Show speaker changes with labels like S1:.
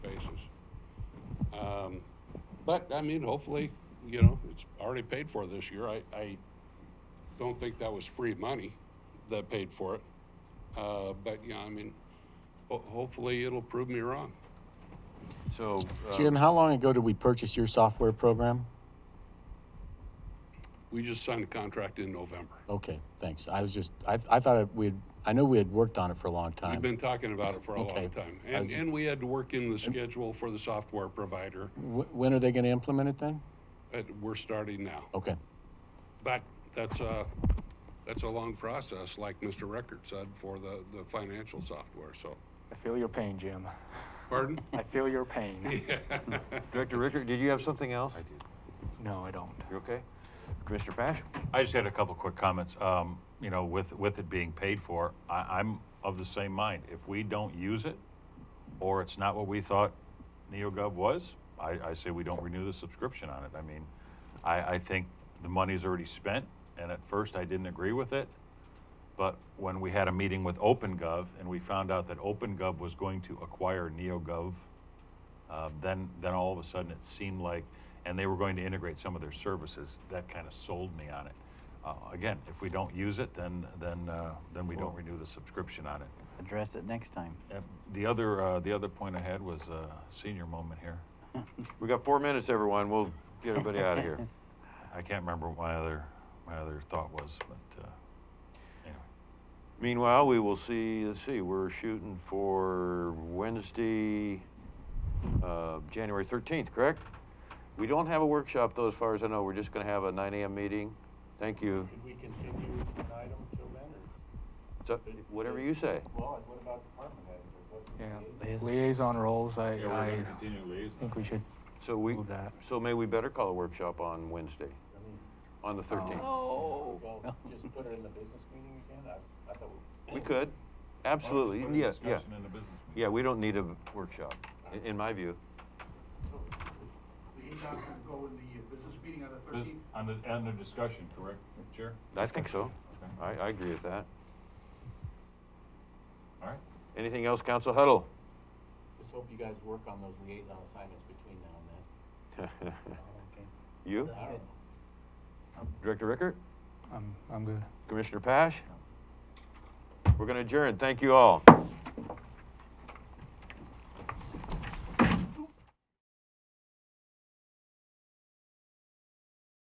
S1: Um, but I mean, hopefully, you know, it's already paid for this year. I, I don't think that was free money that paid for it. Uh, but yeah, I mean, ho- hopefully it'll prove me wrong.
S2: So, uh,
S3: Jim, how long ago did we purchase your software program?
S1: We just signed a contract in November.
S3: Okay, thanks. I was just, I, I thought it- we had, I know we had worked on it for a long
S1: We've
S3: time.
S1: been talking about it for a long
S3: Okay.
S1: time.
S3: I
S1: And,
S3: was-
S1: and we had to work in the schedule for the software provider,
S3: Wh- When are they gonna implement it then?
S1: but we're starting now.
S3: Okay,
S1: But that's a, that's a long process, like Mr. Record said, for the, the financial software, so.
S4: I feel your pain, Jim.
S1: Pardon?
S4: I feel your pain.
S2: Director Rickard, did you have something else? I did.
S4: No, I don't.
S2: You okay? Commissioner Pash?
S5: I just had a couple quick comments. Um, you know, with, with it being paid for, I, I'm of the same mind. If we don't use it, or it's not what we thought NeoGov was, I, I say we don't renew the subscription on it. I mean, I, I think the money's already spent, and at first I didn't agree with it. But when we had a meeting with OpenGov and we found out that OpenGov was going to acquire NeoGov, uh, then, then all of a sudden it seemed like, and they were going to integrate some of their services. That kind of sold me on it. Uh, again, if we don't use it, then then uh, then we don't renew the subscription on it.
S6: address it next time.
S5: Uh, the other uh, the other point I had was a senior moment here.
S2: We got four minutes, everyone. We'll get everybody out of here.
S5: I can't remember what my other my other thought was, but uh, anyway.
S2: Meanwhile, we will see, let's see, we're shooting for Wednesday, uh, January 13th, correct? We don't have a workshop though, as far as I know. We're just gonna have a 9 AM meeting. Thank you.
S7: Should we continue an item till then,
S2: So,
S7: or?
S2: whatever you say.
S7: Well, and what about department heads, or what's? the
S4: Yeah,
S7: liaison?
S4: liaison roles, I, I think we should,
S2: So we,
S4: Move that.
S2: so may we better call a workshop on Wednesday,
S7: I mean,
S2: on the 13th?
S6: Oh.
S7: Well, just put it in the business meeting again, I, I thought.
S2: We could, absolutely, yeah, yeah.
S5: In the business
S2: Yeah, we don't need a workshop, i- in my view.
S8: Liaison's gonna go in the uh, business meeting on the thirteenth?
S5: on the on the discussion, correct, Chair?
S2: I think so.
S5: Okay.
S2: I, I agree with that.
S5: All right.
S2: Anything else, Council Huddle?
S7: Just hope you guys work on those liaison assignments between now and then.
S2: You?
S7: I don't know.
S2: Director Rickert?
S4: I'm, I'm good.
S2: Commissioner Pash? We're going to adjourn. Thank you all.